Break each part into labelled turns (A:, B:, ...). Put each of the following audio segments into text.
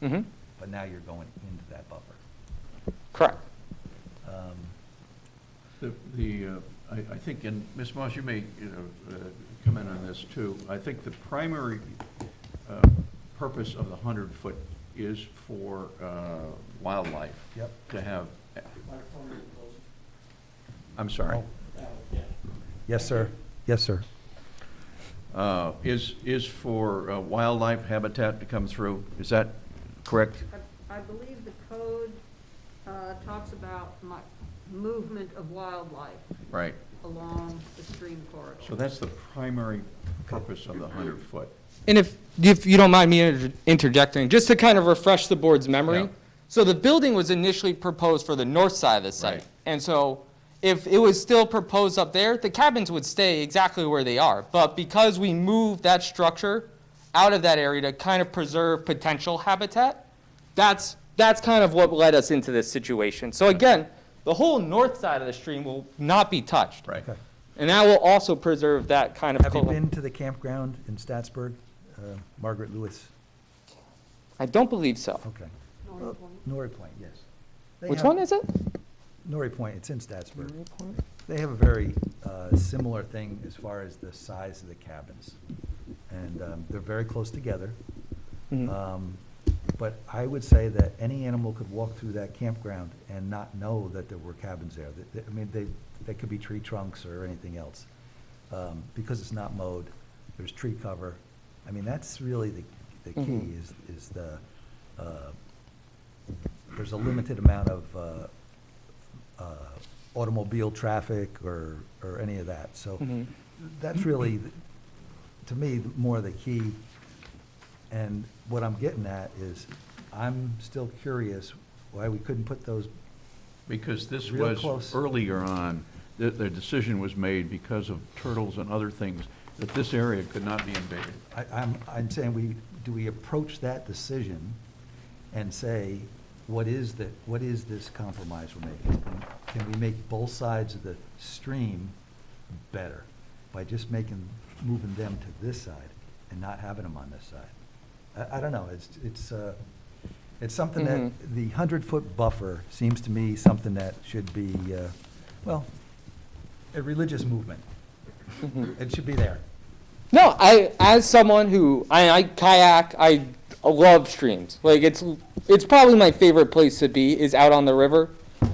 A: Mm-hmm.
B: Mhm.
C: But now you're going into that buffer.
B: Correct.
C: Um,
A: The, the, uh, I, I think, and Ms. Moss, you may, you know, uh, comment on this too. I think the primary uh, purpose of the hundred foot is for uh, wildlife.
C: Yep.
A: To have, I'm sorry,
C: Yes, sir. Yes, sir. Oh.
A: Uh, is, is for uh, wildlife habitat to come through. Is that correct?
D: I I believe the code uh, talks about mi- movement of wildlife
A: Right.
D: along the stream corridor.
A: So that's the primary purpose of the hundred foot.
B: And if, if you don't mind me inter- interjecting, just to kind of refresh the board's
A: Yeah.
B: memory. So the building was initially proposed for the north side of the
A: Right.
B: site. And so if it was still proposed up there, the cabins would stay exactly where they are. But because we moved that structure out of that area to kind of preserve potential habitat, that's, that's kind of what led us into this situation. So again, the whole north side of the stream will not be touched.
A: Right.
C: Okay.
B: And that will also preserve that kind of.
C: Have you
B: cul-
C: been to the campground in Statsburg, uh, Margaret Lewis?
B: I don't believe so.
C: Okay.
D: North Point.
C: Norrie Point, yes. Oh, They
B: Which
C: have-
B: one is it?
C: Norrie Point, it's in Statsburg. They have a very uh, similar thing as far as the size of the cabins. And um, they're very close together.
B: Mm-hmm.
C: Um, But I would say that any animal could walk through that campground and not know that there were cabins there. That- that- I mean, they, they could be tree trunks or anything else. Um, Because it's not mowed, there's tree cover. I mean, that's really the, the key
B: Mhm.
C: is, is the, uh, there's a limited amount of uh, uh, automobile traffic or, or any of that. So
B: Mhm.
C: that's really, th- to me, th- more the key. And what I'm getting at is, I'm still curious why we couldn't put those,
A: Because this
C: Real
A: was
C: close.
A: earlier on, the, the decision was made because of turtles and other things, that this area could not be invaded.
C: I, I'm, I'm saying we, do we approach that decision and say, what is the, what is this compromise we're making? And Can we make both sides of the stream better by just making, moving them to this side and not having them on this side? I, I don't know, it's, it's, uh, it's something
B: Mhm.
C: that, the hundred-foot buffer seems to me something that should be, uh, well, a religious movement. It should be there.
B: No, I as someone who I, I kayak, I love streams. Like it's it's probably my favorite place to be is out on the river.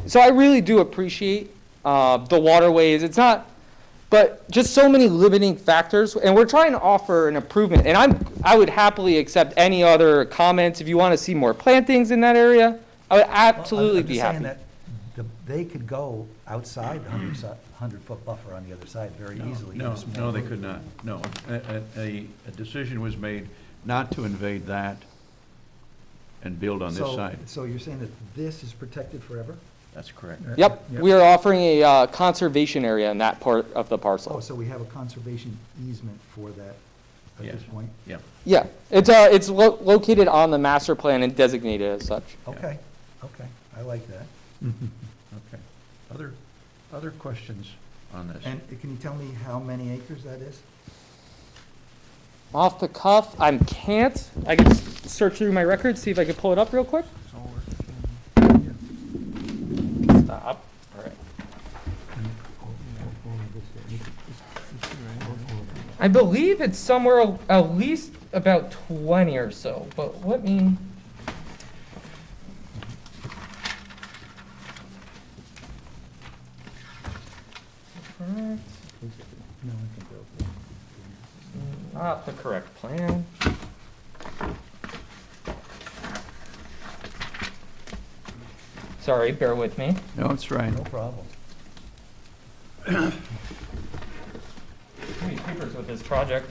B: So I really do appreciate uh, the waterways. It's not, but just so many limiting factors, and we're trying to offer an improvement. And I'm I would happily accept any other comments if you want to see more plantings in that area. I would
C: Well, I'm-
B: absolutely be
C: I'm just saying
B: happy.
C: that the- they could go outside the 100-foot buffer on the other side very
A: No,
C: easily.
A: No,
C: Just-
A: no, they could not, no. A, a- a, a decision was made not to invade that and build on this
C: So-
A: side.
C: So you're saying that this is protected forever?
A: That's correct.
B: Yep,
C: Yep.
B: we are offering a uh, conservation area in that part of the parcel.
C: Oh, so we have a conservation easement for that at
A: Yes.
C: this point?
A: Yep.
B: Yeah, it's, uh, it's lo- located on the master plan and designated as such.
C: Okay, okay, I like that.
A: Okay. Other, other questions on this?
C: And can you tell me how many acres that is?
B: Off the cuff, I can't, I can s- search through my records, see if I can pull it up real quick. Stop. I believe it's somewhere al- at least about 20 or so, but let me. Correct. Not the correct plan. Sorry, bear with me.
A: No, it's right.
C: No problem.
B: Too many papers with this project.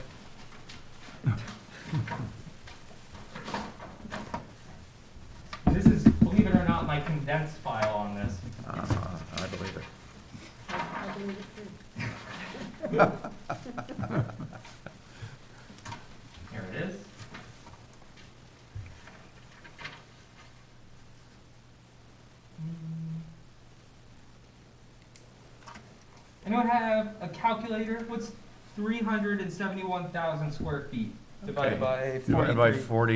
B: This is, believe it or not, my condensed file on this.
A: Uh, I believe it.
D: I believe it's true.
B: Here it is. Anyone have a calculator? What's 371,000 square feet divided by
A: Divided by
B: 43?
A: forty